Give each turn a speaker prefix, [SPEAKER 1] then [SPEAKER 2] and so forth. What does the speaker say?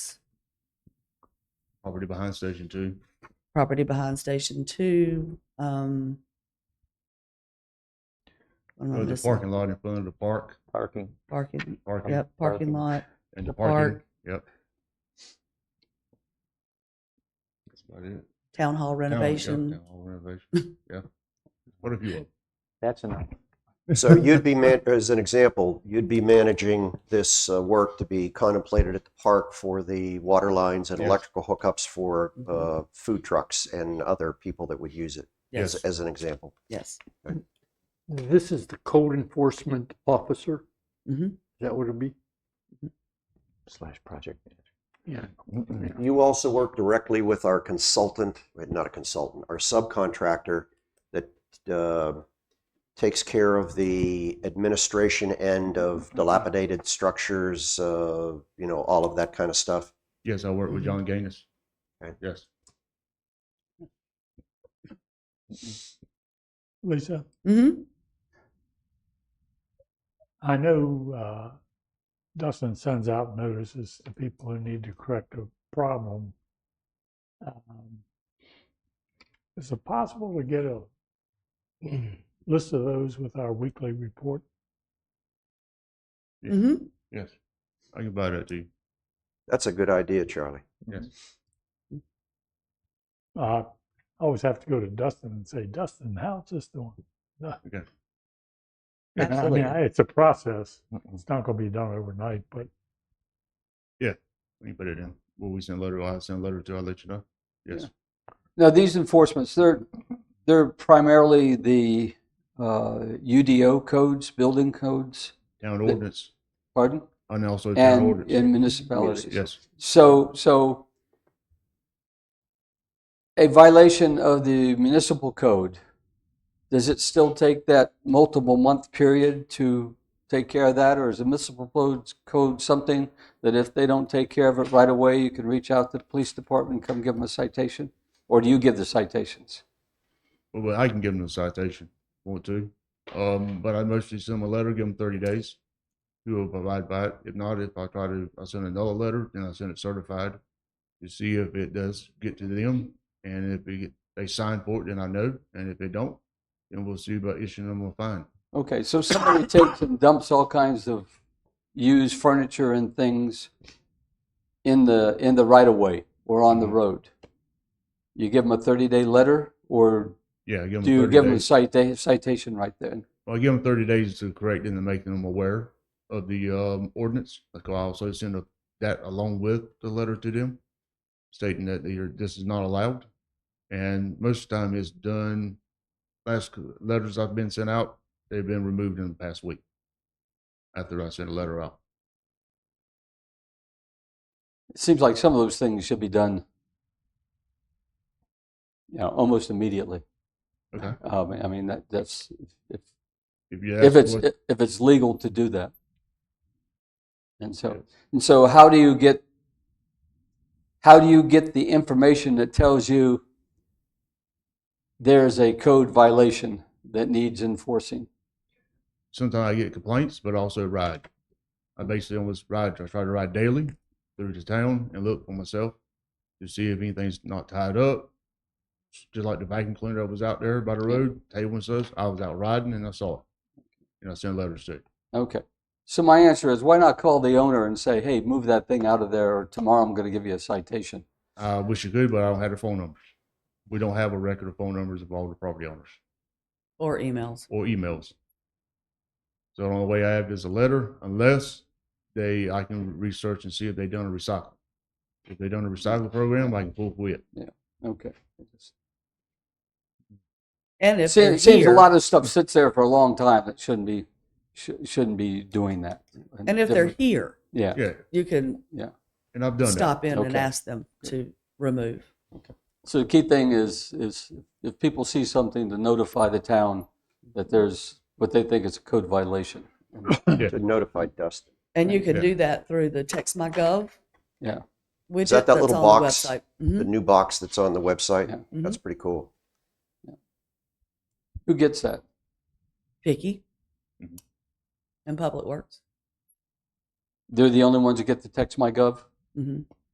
[SPEAKER 1] property behind Station Two.
[SPEAKER 2] property behind Station Two, um. what am I
[SPEAKER 1] Or Oh, the
[SPEAKER 2] missing?
[SPEAKER 1] parking lot in front of the park,
[SPEAKER 3] parking.
[SPEAKER 2] Parking,
[SPEAKER 1] parking.
[SPEAKER 2] yep, parking
[SPEAKER 3] Parking.
[SPEAKER 2] lot,
[SPEAKER 1] And
[SPEAKER 2] the
[SPEAKER 1] the parking,
[SPEAKER 2] park.
[SPEAKER 1] yep. That's about it.
[SPEAKER 2] town hall
[SPEAKER 1] Town- yep,
[SPEAKER 2] renovation.
[SPEAKER 1] town hall Renovation, yeah. What if you?
[SPEAKER 3] That's enough.
[SPEAKER 4] So you'd be, man- as an example, you'd be managing this uh, work to be contemplated at the park for the water lines and
[SPEAKER 1] Yes.
[SPEAKER 4] electrical hookups for
[SPEAKER 2] Mhm.
[SPEAKER 4] uh, food trucks and other people that would use it, as,
[SPEAKER 2] Yes,
[SPEAKER 4] as an example.
[SPEAKER 2] yes.
[SPEAKER 5] This is the code enforcement officer?
[SPEAKER 2] Mhm.
[SPEAKER 5] Is that what it'd be?
[SPEAKER 3] Slash project.
[SPEAKER 5] Yeah.
[SPEAKER 4] You also work directly with our consultant, eh, not a consultant, our subcontractor that uh, takes care of the administration end of dilapidated structures, uh, you know, all of that kind of stuff.
[SPEAKER 1] Yes, I work
[SPEAKER 2] Mm-hmm.
[SPEAKER 1] with John Gaines.
[SPEAKER 4] Okay.
[SPEAKER 1] Yes.
[SPEAKER 6] Lisa,
[SPEAKER 2] Mm-hmm,
[SPEAKER 6] I know uh, Dustin sends out notices to people who need to correct a problem. Um, Is it possible to get a list of those with our weekly report?
[SPEAKER 1] Yeah.
[SPEAKER 2] mm-hmm.
[SPEAKER 1] Yes, I can buy that to you.
[SPEAKER 4] That's a good idea, Charlie.
[SPEAKER 6] Uh, I always have to go to Dustin and say, Dustin, how's this doing? Uh,
[SPEAKER 1] Okay.
[SPEAKER 6] And I
[SPEAKER 2] Absolutely.
[SPEAKER 6] mean, I- it's a process. It's not going to be done overnight, but
[SPEAKER 1] We can put it in. Will we send a letter? I'll send a letter to, I'll let you know. Yes.
[SPEAKER 7] Now, these enforcements, they're, they're primarily the uh, UDO codes, building codes,
[SPEAKER 1] Town ordinance
[SPEAKER 7] pardon?
[SPEAKER 1] and also town
[SPEAKER 7] And,
[SPEAKER 1] ordinance.
[SPEAKER 7] and municipalities.
[SPEAKER 1] Yes,
[SPEAKER 7] So, so a violation of the municipal code, does it still take that multiple month period to take care of that? Or is the municipal codes- code something that if they don't take care of it right away, you can reach out to the police department, and come give them a citation? Or do you give the citations?
[SPEAKER 1] well, but I can give them a citation, if I want to. Um, but I mostly send them a letter, give them thirty days. Who will provide by it? If not, if I try to, I send another letter, then I send it certified to see if it does get to them. And if they get, they sign for it, then I know. And if they don't, then we'll see about issuing them a fine.
[SPEAKER 7] Okay, so somebody takes and dumps all kinds of used furniture and things in the, in the right of way or on the
[SPEAKER 1] Mhm.
[SPEAKER 7] road. You give them a 30-day letter or
[SPEAKER 1] Yeah, I give them.
[SPEAKER 7] do you
[SPEAKER 1] 30
[SPEAKER 7] give them a
[SPEAKER 1] days.
[SPEAKER 7] cita- citation right then?
[SPEAKER 1] Well, I give them thirty days to correct and to make them aware of the um, ordinance. Like I also send a, that along with the letter to them, stating that they are, this is not allowed. And most of the time, it's done. Last c- letters I've been sent out, they've been removed in the past week. After I sent a letter out,
[SPEAKER 7] It seems like some of those things should be done, you know, almost immediately.
[SPEAKER 1] okay.
[SPEAKER 7] Um, I mean, that, that's, if,
[SPEAKER 1] If you
[SPEAKER 7] if
[SPEAKER 1] ask
[SPEAKER 7] it's,
[SPEAKER 1] what-
[SPEAKER 7] if it's legal to do that. And so, and so how do you get, how do you get the information that tells you there's a code violation that needs enforcing?
[SPEAKER 1] sometimes I get complaints, but also ride. I basically almost ride. I try to ride daily through the town and look for myself to see if anything's not tied up. Just like the vacuum cleaner that was out there by the road, table and stuff. I was out riding and I saw it, and I sent letters to. it.
[SPEAKER 7] Okay. So my answer is, why not call the owner and say, hey, move that thing out of there, or tomorrow I'm going to give you a citation?
[SPEAKER 1] I wish you could, but I don't have the phone numbers. We don't have a record of phone numbers of all the property owners
[SPEAKER 2] Or emails.
[SPEAKER 1] or emails. So the only way I have is a letter, unless they I can research and see if they done a recycle. If they done a recycle program, I can pull quit.
[SPEAKER 7] Okay.
[SPEAKER 2] And if they're
[SPEAKER 7] It seems a
[SPEAKER 2] here-
[SPEAKER 7] lot of stuff sits there for a long time that shouldn't be, sh- shouldn't be doing that.
[SPEAKER 2] And if they're here,
[SPEAKER 7] Yeah.
[SPEAKER 1] Yeah,
[SPEAKER 2] you can
[SPEAKER 1] and I've done
[SPEAKER 2] stop in and
[SPEAKER 7] Okay.
[SPEAKER 2] ask them to remove.
[SPEAKER 7] So the key thing is, is if people see something, to notify the town that there's what they think is a code violation.
[SPEAKER 4] To notify Dustin.
[SPEAKER 2] And you can
[SPEAKER 1] Yeah.
[SPEAKER 2] do that through the text my gov.
[SPEAKER 7] Yeah.
[SPEAKER 2] Widget
[SPEAKER 4] that
[SPEAKER 2] that's
[SPEAKER 4] little
[SPEAKER 2] on the
[SPEAKER 4] box?
[SPEAKER 2] website.
[SPEAKER 4] the
[SPEAKER 2] Mhm,
[SPEAKER 4] new box that's on the website.
[SPEAKER 7] Yeah.
[SPEAKER 4] That's pretty cool.
[SPEAKER 7] Who gets that?
[SPEAKER 2] Vicky.
[SPEAKER 1] Mhm.
[SPEAKER 2] And Public Works.
[SPEAKER 7] They're the only ones who get the text my gov?
[SPEAKER 2] Mhm.